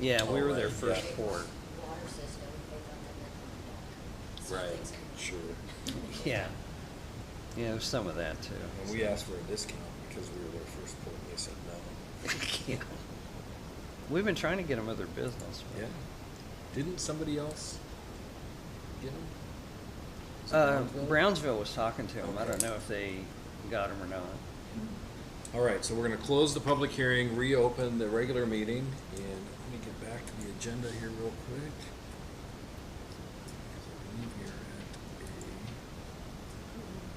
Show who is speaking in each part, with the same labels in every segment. Speaker 1: Yeah, we were their
Speaker 2: Alright,
Speaker 1: first
Speaker 2: yeah.
Speaker 1: port.
Speaker 3: water system, they got them in Hong Kong.
Speaker 2: Right,
Speaker 3: Something's happening.
Speaker 2: sure.
Speaker 1: Yeah. Yeah, there's some of that too.
Speaker 2: And we asked for a discount because we were their first port, and they said no.
Speaker 1: Yeah. We've been trying to get them other business. but-
Speaker 2: Yeah. Didn't somebody else get them?
Speaker 1: Uh, Brownsville was talking to them. I don't
Speaker 2: Okay.
Speaker 1: know if they got them or not.
Speaker 2: All right, so we're gonna close the public hearing, reopen the regular meeting, and let me get back to the agenda here real quick. I believe you're at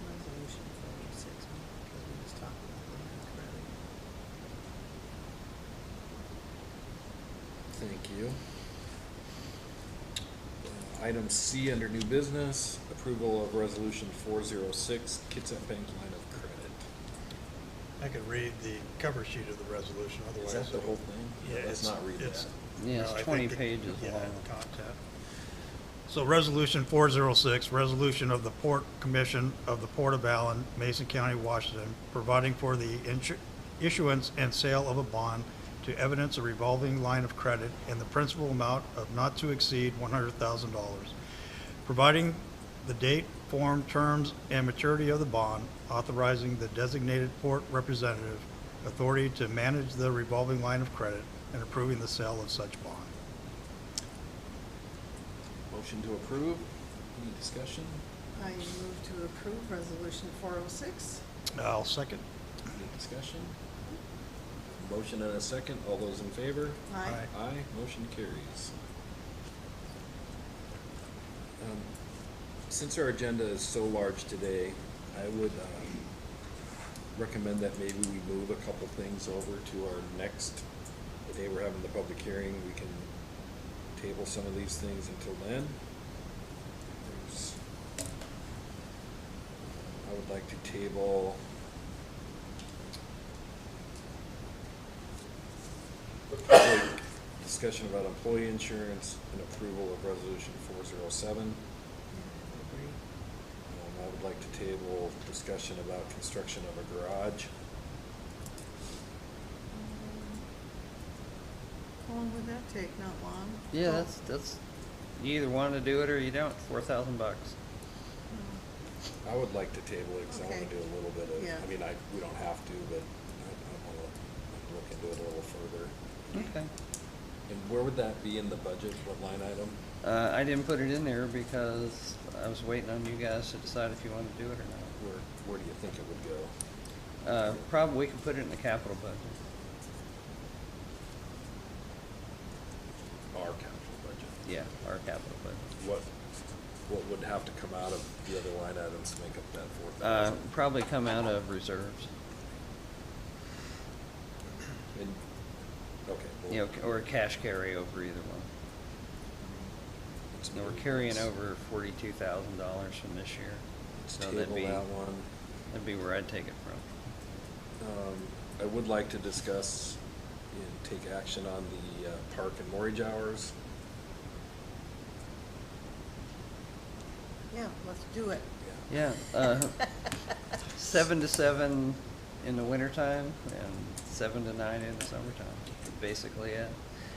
Speaker 4: Resolution forty-six, because we just talked about that already.
Speaker 2: A. Thank you. Uh, Item C under new business, approval of resolution four zero six, Kitsap Bank line of credit.
Speaker 5: I could read the cover sheet of the resolution, otherwise.
Speaker 2: Is that the
Speaker 5: it-
Speaker 2: whole thing?
Speaker 5: Yeah,
Speaker 2: Let's
Speaker 5: it's.
Speaker 2: not read
Speaker 5: it's-
Speaker 2: that.
Speaker 1: Yeah, it's
Speaker 5: no, I think
Speaker 1: 20
Speaker 5: the-
Speaker 1: pages
Speaker 5: yeah,
Speaker 1: long.
Speaker 5: the content. So Resolution 406, resolution of the Port Commission of the Port of Allen, Mason County, Washington, providing for the insu- issuance and sale of a bond to evidence a revolving line of credit in the principal amount of not to exceed $100,000 providing the date, form, terms, and maturity of the bond, authorizing the designated port representative authority to manage the revolving line of credit, and approving the sale of such bond.
Speaker 2: Motion to approve. Any discussion?
Speaker 4: I move to approve resolution four oh six.
Speaker 5: I'll second.
Speaker 2: Any discussion? Motion and a second. All those in favor?
Speaker 4: Aye.
Speaker 5: Aye.
Speaker 2: Aye, motion carries. Um, Since our agenda is so large today, I would um, recommend that maybe we move a couple things over to our next, the day we're having the public hearing, we can table some of these things until then. There's- I would like to table Public Discussion about employee insurance and approval of resolution four zero seven. Um, Mm-hmm. I would like to table discussion about construction of a garage.
Speaker 4: How long would that take? Not long?
Speaker 1: Yeah,
Speaker 4: Well,
Speaker 1: that's that's. You either want to do it or you don't. Four thousand bucks.
Speaker 4: no.
Speaker 2: I would like to table it because I want to
Speaker 4: Okay.
Speaker 2: do a little bit of,
Speaker 4: Yeah.
Speaker 2: I mean, I, we don't have to, but I, I want to look into it a little further.
Speaker 1: Okay.
Speaker 2: And where would that be in the budget? What line item?
Speaker 1: Uh, I didn't put it in there because I was waiting on you guys to decide if you want to do it or
Speaker 2: Where, where do you think it would go?
Speaker 1: not. Uh, probably we can put it in the capital budget.
Speaker 2: Our capital budget.
Speaker 1: Yeah, our capital budget.
Speaker 2: What, what would have to come out of the other line items to make up that four
Speaker 1: Uh,
Speaker 2: thousand?
Speaker 1: probably come out of reserves.
Speaker 2: And, okay. well,
Speaker 1: You know, or cash carryover, either one.
Speaker 2: let's
Speaker 1: Now, we're
Speaker 2: move-
Speaker 1: carrying
Speaker 2: let's-
Speaker 1: over forty-two thousand dollars from this year.
Speaker 2: let's
Speaker 1: So that'd
Speaker 2: table
Speaker 1: be,
Speaker 2: that one.
Speaker 1: that'd be where I'd take it from.
Speaker 2: Um, I would like to discuss and take action on the uh, park and mortgage hours.
Speaker 4: Yeah, let's do it.
Speaker 2: Yeah.
Speaker 1: Yeah, uh, seven to seven in the wintertime and seven to nine in the summertime, basically it.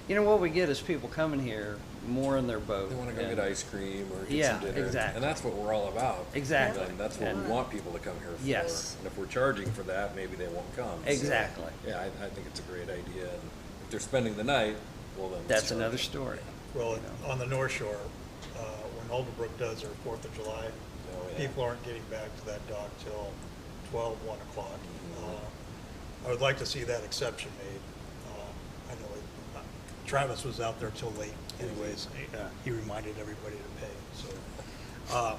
Speaker 1: You know, what we get is people coming here more in their boat.
Speaker 2: They wanna go
Speaker 1: and-
Speaker 2: get ice cream or get
Speaker 1: Yeah,
Speaker 2: some dinner.
Speaker 1: exactly.
Speaker 2: And that's what we're all about.
Speaker 1: Exactly.
Speaker 2: And that's what we
Speaker 1: Yeah.
Speaker 2: want people to come here for.
Speaker 1: Yes.
Speaker 2: And if we're charging for that, maybe they won't come. So,
Speaker 1: Exactly.
Speaker 2: Yeah, I, I think it's a great idea. And If they're spending the night, well then. let's
Speaker 1: That's
Speaker 2: charge
Speaker 1: another
Speaker 2: them.
Speaker 1: story.
Speaker 5: Well,
Speaker 1: you know.
Speaker 5: on the North Shore, uh, when Alderbrook does their Fourth of July,
Speaker 2: Oh, yeah.
Speaker 5: people aren't getting back to that dock till twelve, one o'clock.
Speaker 2: Mhm.
Speaker 5: Uh, I would like to see that exception made. Uh, I know it- uh, Travis was out there till late
Speaker 2: Mm-hmm.
Speaker 5: anyways. He, uh, He reminded everybody to pay, so. uh,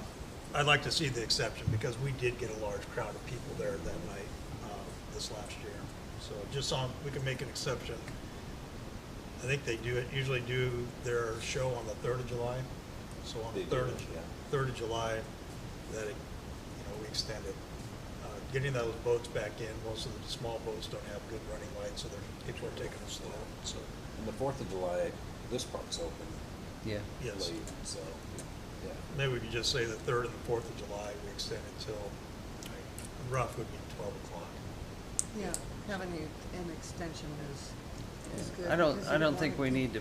Speaker 5: I'd like to see the exception because we did get a large crowd of people there that night uh, this last year. So just on, we can make an exception I think they do, it usually do their show on the third of July, so on the
Speaker 2: They do,
Speaker 5: third of,
Speaker 2: yeah.
Speaker 5: third of July, that, it- you know, we extend it. Uh, Getting those boats back in, most of the small boats don't have good running lights, so they're, people are taking them slow, so,
Speaker 2: And the Fourth of July, this park's open
Speaker 1: Yeah,
Speaker 5: yes.
Speaker 2: late, so, yeah.
Speaker 5: Maybe we could just say the third and the fourth of July, we extend it till, like, rough would be twelve o'clock.
Speaker 4: Yeah, having the- an extension is, is good.
Speaker 1: I don't,
Speaker 4: because
Speaker 1: I
Speaker 4: you
Speaker 1: don't think
Speaker 4: want
Speaker 1: we
Speaker 4: it-
Speaker 1: need to